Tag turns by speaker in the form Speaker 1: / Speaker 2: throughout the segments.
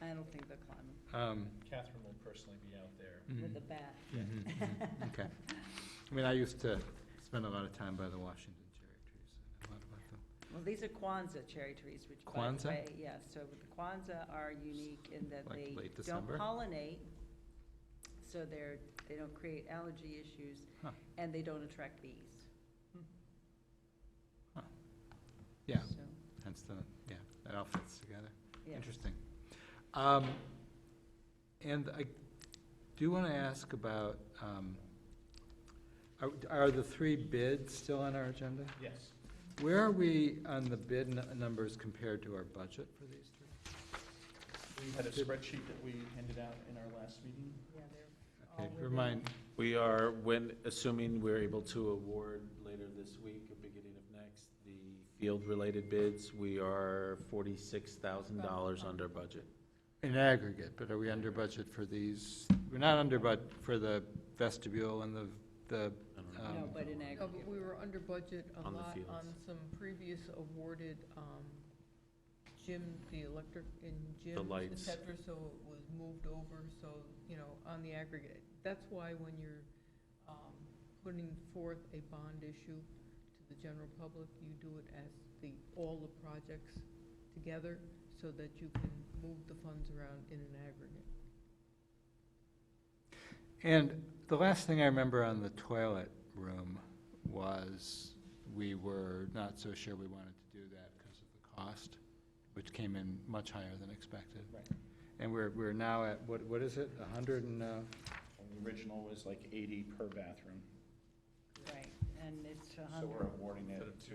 Speaker 1: I don't think they're climbing
Speaker 2: Um,
Speaker 3: Catherine will personally be out there.
Speaker 1: with
Speaker 2: mhm,
Speaker 1: the bat.
Speaker 2: mhm, mhm, Okay. I mean, I used to spend a lot of time by the Washington cherry trees. I know a lot about them.
Speaker 1: Well, these are Kwanzaa cherry trees, which by
Speaker 2: Kwanzaa?
Speaker 1: the way, yeah, so the Kwanzaa are unique in that
Speaker 2: Like
Speaker 1: they
Speaker 2: late
Speaker 1: don't
Speaker 2: December?
Speaker 1: pollinate, so they're, they don't create allergy issues,
Speaker 2: Huh.
Speaker 1: and they don't attract bees.
Speaker 2: Yeah,
Speaker 1: So,
Speaker 2: hence the, yeah, that all fits together.
Speaker 1: yeah.
Speaker 2: Interesting. Um, And I do want to ask about, um, are- are the three bids still on our agenda?
Speaker 3: Yes.
Speaker 2: Where are we on the bid nu- numbers compared to our budget for these three?
Speaker 3: We had a spreadsheet that we handed out in our last meeting.
Speaker 1: Yeah, they're all
Speaker 2: Okay,
Speaker 1: within-
Speaker 2: Remind,
Speaker 4: We are, when, assuming we're able to award later this week or beginning of next, the field-related bids, we are forty-six thousand dollars under budget.
Speaker 2: in aggregate, but are we under budget for these? We're not under budget for the vestibule and the, the,
Speaker 4: I don't know.
Speaker 2: Um,
Speaker 1: No, but in
Speaker 5: No, but
Speaker 1: aggregate.
Speaker 5: we were under budget a
Speaker 4: On the
Speaker 5: lot
Speaker 4: fields.
Speaker 5: on some previous awarded, um, gym, the electric and gyms, et
Speaker 4: lights.
Speaker 5: cetera, so it was moved over, so, you know, on the aggregate. That's why when you're, um, putting forth a bond issue to the general public, you do it as the, all the projects together, so that you can move the funds around in an aggregate.
Speaker 2: and the last thing I remember on the toilet room was we were not so sure we wanted to do that because of the cost, which came in much higher than expected.
Speaker 3: Right.
Speaker 2: And we're, we're now at, what, what is it, a hundred and, uh,
Speaker 3: And the original was like eighty per bathroom,
Speaker 1: Right, and it's a
Speaker 3: so we're
Speaker 1: hundred,
Speaker 3: awarding it to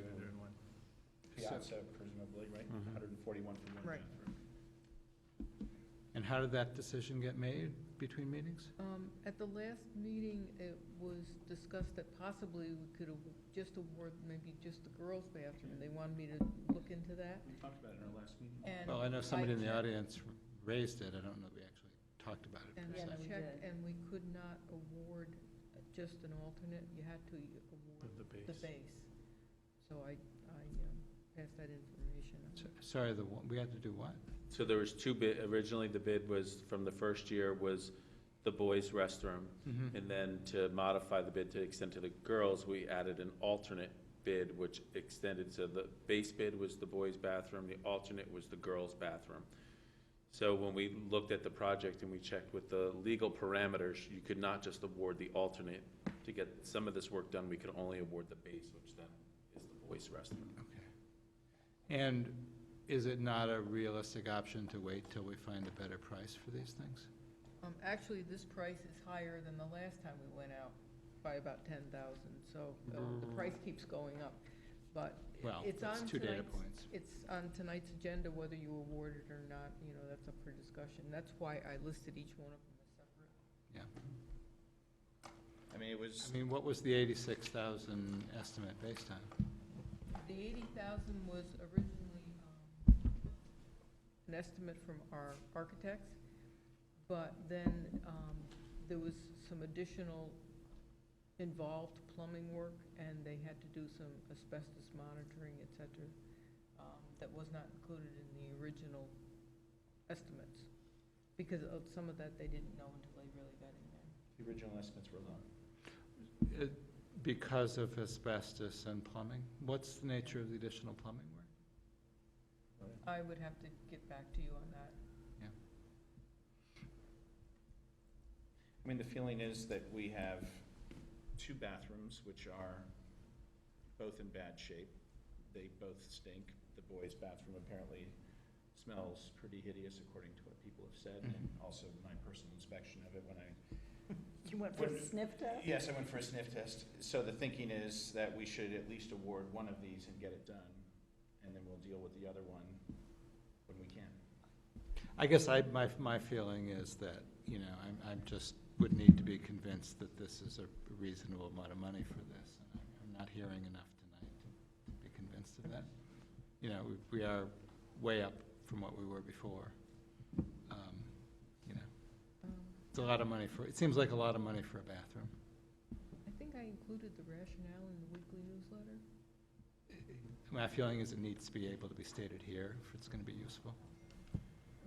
Speaker 3: Piazza presumably, right?
Speaker 4: Mhm.
Speaker 2: Mm-hmm.
Speaker 3: Hundred and forty-one for one
Speaker 5: Right.
Speaker 3: bathroom.
Speaker 2: and how did that decision get made between meetings?
Speaker 5: Um, At the last meeting, it was discussed that possibly we could have just award maybe just the girls' bathroom. They wanted me to look into that.
Speaker 3: We talked about it in our last meeting.
Speaker 5: And
Speaker 2: Well, I know somebody in the
Speaker 5: checked-
Speaker 2: audience raised it, I don't know if we actually talked about it.
Speaker 5: And
Speaker 1: Yeah,
Speaker 5: I
Speaker 1: we
Speaker 5: checked,
Speaker 1: did.
Speaker 5: and we could not award just an alternate. You had to award the base. So I, I um, passed that information. on.
Speaker 2: So- Sorry, the, one- we had to do what?
Speaker 4: So there was two bid, originally the bid was, from the first year, was the boys' restroom.
Speaker 2: Mhm.
Speaker 4: And then to modify the bid to extend to the girls, we added an alternate bid, which extended, so the base bid was the boys' bathroom, the alternate was the girls' bathroom. So when we looked at the project and we checked with the legal parameters, you could not just award the alternate. To get some of this work done, we could only award the base, which then is the boys' restroom.
Speaker 2: And is it not a realistic option to wait till we find a better price for these things?
Speaker 5: Um, Actually, this price is higher than the last time we went out by about ten thousand, so uh, the price keeps going up. But
Speaker 2: Mm. Well,
Speaker 5: it's
Speaker 2: that's
Speaker 5: on
Speaker 2: two data
Speaker 5: tonight's-
Speaker 2: points.
Speaker 5: It's on tonight's agenda, whether you award it or not, you know, that's up for discussion. That's why I listed each one of them as separate.
Speaker 3: I mean, it was,
Speaker 2: I mean, what was the eighty-six thousand estimate based on?
Speaker 5: The eighty thousand was originally um, an estimate from our architects, but then um, there was some additional involved plumbing work, and they had to do some asbestos monitoring, et cetera, um, that was not included in the original estimates, because of some of that they didn't know until they really got in there.
Speaker 3: the original estimates were low.
Speaker 2: Uh, Because of asbestos and plumbing? What's the nature of the additional plumbing work?
Speaker 5: I would have to get back to you on that.
Speaker 3: I mean, the feeling is that we have two bathrooms which are both in bad shape. They both stink. The boys' bathroom apparently smells pretty hideous according to what people have said and also my personal inspection of it when I
Speaker 1: you went for a
Speaker 3: What-
Speaker 1: sniff test?
Speaker 3: Yes, I went for a sniff test. So the thinking is that we should at least award one of these and get it done, and then we'll deal with the other one when we can.
Speaker 2: I guess I, my, my feeling is that, you know, I'm, I'm just, would need to be convinced that this is a reasonable amount of money for this. and I'm- I'm not hearing enough tonight to be convinced of that. You know, we- we are way up from what we were before. Um, You know,
Speaker 5: Um,
Speaker 2: it's a lot of money for, it seems like a lot of money for a bathroom.
Speaker 5: I think I included the rationale in the weekly newsletter.
Speaker 2: My feeling is it needs to be able to be stated here if it's gonna be useful.